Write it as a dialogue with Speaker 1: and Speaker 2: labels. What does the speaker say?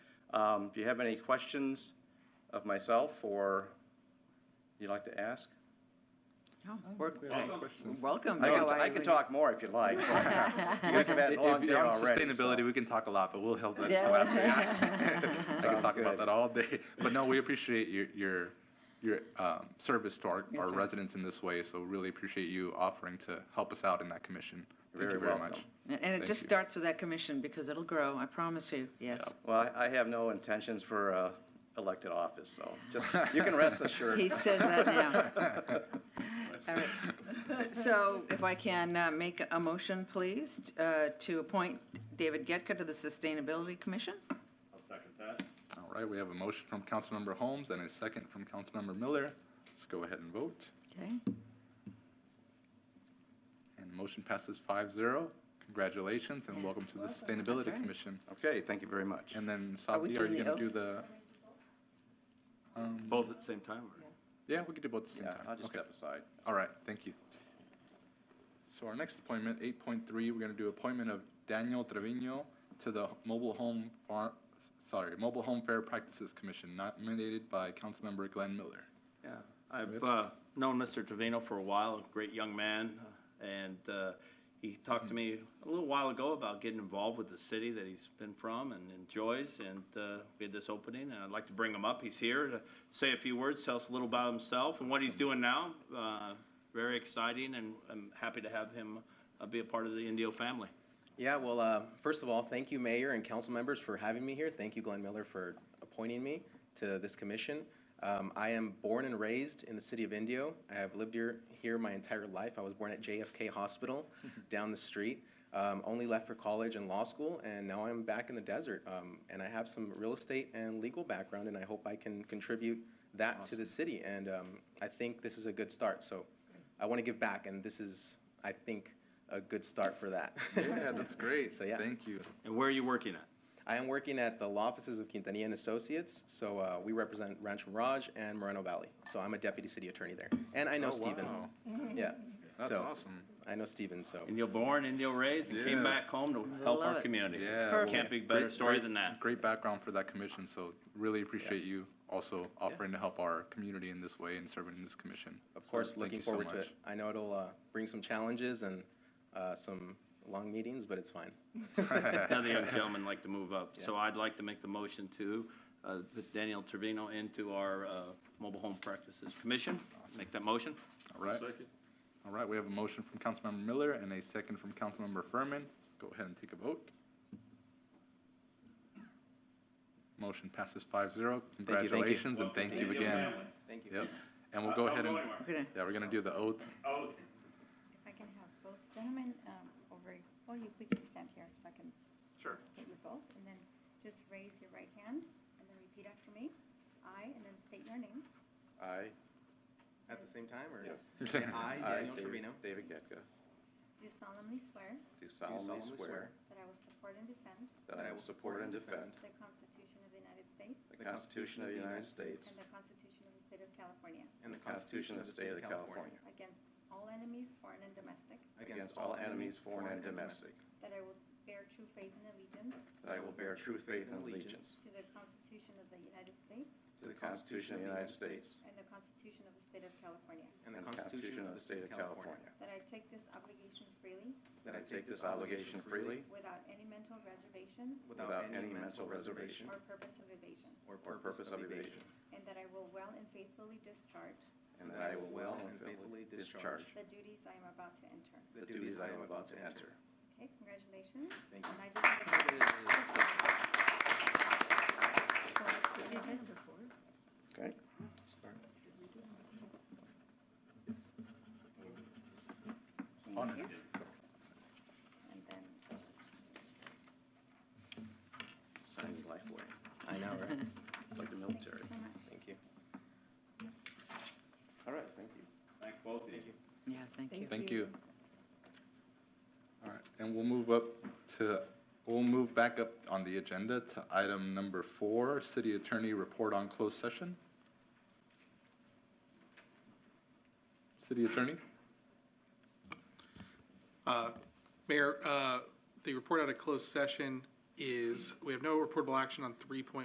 Speaker 1: Um, Do you have any questions of myself or you'd like to ask?
Speaker 2: We're-
Speaker 3: We have any questions?
Speaker 2: Oh, Welcome.
Speaker 1: I
Speaker 2: no,
Speaker 1: can, I can
Speaker 2: would-
Speaker 1: talk more if you'd like. You guys have had
Speaker 3: If-
Speaker 1: a long
Speaker 3: if
Speaker 1: day
Speaker 3: you're on
Speaker 1: already. so-
Speaker 3: Sustainability, we can talk a lot, but we'll help that
Speaker 2: Yeah.
Speaker 3: till after. I can
Speaker 1: Sounds
Speaker 3: talk about
Speaker 1: good.
Speaker 3: that all day. But no, we appreciate your, your, your um, service to our,
Speaker 2: Yes,
Speaker 3: our
Speaker 2: sir.
Speaker 3: residents in this way. So really appreciate you offering to help us out in that commission. Thank
Speaker 1: Very
Speaker 3: you very
Speaker 1: welcome.
Speaker 3: much.
Speaker 2: And and it
Speaker 3: Thank
Speaker 2: just
Speaker 3: you.
Speaker 2: starts with that commission because it'll grow, I promise you, yes.
Speaker 1: Well, I I have no intentions for uh, elected office, so just, you can rest assured.
Speaker 2: He says that now. All right. So if I can uh, make a motion, please, uh, to appoint David Getka to the Sustainability Commission?
Speaker 4: I'll second that.
Speaker 3: All right, we have a motion from Councilmember Holmes and a second from Councilmember Miller. Let's go ahead and vote.
Speaker 2: Okay,
Speaker 3: And the motion passes 5-0. Congratulations and welcome to the Sustainability
Speaker 2: right.
Speaker 3: Commission.
Speaker 1: Okay, thank you very much.
Speaker 3: And then
Speaker 2: we
Speaker 3: Sabi, are
Speaker 2: doing
Speaker 3: you
Speaker 2: the
Speaker 3: going
Speaker 2: oath?
Speaker 3: to do the? um,
Speaker 4: Both at the same time? or-
Speaker 3: Yeah, we could do both at the same
Speaker 1: Yeah,
Speaker 3: time.
Speaker 1: I'll just
Speaker 3: Okay.
Speaker 1: step aside.
Speaker 3: All right, thank you. So our next appointment, eight point three, we're gonna do appointment of Daniel Trevino to the Mobile Home Far, sorry, Mobile Home Fair Practices Commission, nominated by Councilmember Glenn Miller.
Speaker 4: Yeah, I've uh, known Mr. Trevino for a while, a great young man, uh, and uh, he talked to me a little while ago about getting involved with the city that he's been from and enjoys, and uh, we had this opening, and I'd like to bring him up. He's here to say a few words, tell us a little about himself and what he's doing now. Uh, Very exciting, and I'm happy to have him uh, be a part of the Indio family.
Speaker 5: Yeah, well, uh, first of all, thank you, Mayor and council members, for having me here. Thank you, Glenn Miller, for appointing me to this commission. Um, I am born and raised in the city of Indio. I have lived here, here my entire life. I was born at JFK Hospital down the street. Um, only left for college and law school, and now I'm back in the desert. Um, and I have some real estate and legal background, and I hope I can contribute that to the city. And um, I think this is a good start. So I want to give back, and this is, I think, a good start for that.
Speaker 3: Yeah, that's great.
Speaker 5: So, yeah.
Speaker 3: Thank you.
Speaker 4: And where are you working at?
Speaker 5: I am working at the law offices of Quintanilla and Associates, so uh, we represent Rancho Mirage and Moreno Valley. So I'm a deputy city attorney there, and I know
Speaker 3: Oh,
Speaker 5: Stephen.
Speaker 3: wow.
Speaker 5: Yeah,
Speaker 3: That's
Speaker 5: so
Speaker 3: awesome.
Speaker 5: I know Stephen. So
Speaker 4: Indio born, Indio raised, and
Speaker 3: Yeah.
Speaker 4: came back home to help
Speaker 2: Love
Speaker 4: our
Speaker 2: it.
Speaker 4: community.
Speaker 3: Yeah. well,
Speaker 2: Perfect.
Speaker 4: Can't be a better
Speaker 3: great-
Speaker 4: story
Speaker 3: great-
Speaker 4: than that.
Speaker 3: Great background for that commission, so really appreciate you also offering to help our community in this way and serving in this commission.
Speaker 5: of course, looking forward to it.
Speaker 3: it.
Speaker 5: I know it'll uh, bring some challenges and uh, some long meetings, but it's fine.
Speaker 4: Another young gentleman like to move up, so I'd like to make the motion to uh, put Daniel Trevino into our uh, Mobile Home Practices Commission. Make that motion.
Speaker 3: All right. All right, we have a motion from Councilmember Miller and a second from Councilmember Furman. Let's go ahead and take a vote. Motion passes 5-0.
Speaker 5: thank you.
Speaker 3: Congratulations and thank you again.
Speaker 5: Thank you.
Speaker 3: Yep. And we'll go ahead and,
Speaker 2: we're gonna-
Speaker 3: yeah, we're going to do the oath.
Speaker 6: If I can have both gentlemen um, over, well, you, we can stand here so I can
Speaker 4: Sure.
Speaker 6: get you both. And then just raise your right hand and then repeat after me. I, and then state your name.
Speaker 1: I,
Speaker 5: At the same time, or
Speaker 6: Yes.
Speaker 5: I,
Speaker 1: I,
Speaker 5: Daniel Trevino,
Speaker 1: David- David Getka,
Speaker 6: Do solemnly swear
Speaker 1: do
Speaker 5: do
Speaker 1: solemnly swear
Speaker 6: that I will support and defend
Speaker 1: that I will support and defend
Speaker 6: the Constitution of the United States
Speaker 1: the Constitution of the United States
Speaker 6: and the Constitution
Speaker 1: Constitution of
Speaker 5: and the
Speaker 6: of the State of California
Speaker 1: the State of California
Speaker 6: against all enemies, foreign and domestic,
Speaker 1: against all enemies, foreign and domestic,
Speaker 6: that I will bear true faith and allegiance
Speaker 1: that I will bear true faith and allegiance
Speaker 6: to the Constitution of the United States
Speaker 1: to the Constitution of the United States
Speaker 6: and the Constitution of the State of California,
Speaker 1: and the Constitution of the State of California,
Speaker 6: that I take this obligation freely
Speaker 1: that I take this obligation freely
Speaker 6: Without any mental reservation
Speaker 1: without any mental reservation
Speaker 6: or purpose of evasion.
Speaker 1: or purpose of evasion,
Speaker 6: And that I will well and faithfully discharge
Speaker 1: and that I will well and faithfully discharge
Speaker 6: the duties I am about to enter.
Speaker 1: the duties I am about to enter.
Speaker 6: Okay, congratulations.
Speaker 5: Thank you.
Speaker 6: And I just have a-
Speaker 1: Okay.
Speaker 3: Honor.
Speaker 6: And then,
Speaker 1: Sign your life away,
Speaker 5: I know, right?
Speaker 1: like the military.
Speaker 6: so much.
Speaker 5: Thank you.
Speaker 1: All right, thank you.
Speaker 4: Thank both of you.
Speaker 2: Yeah, thank you.
Speaker 3: Thank you. All right, and we'll move up to, we'll move back up on the agenda to item number four, City Attorney Report on Closed Session. City Attorney?
Speaker 7: Uh, Mayor, uh, the report out of closed session is, we have no reportable action on three point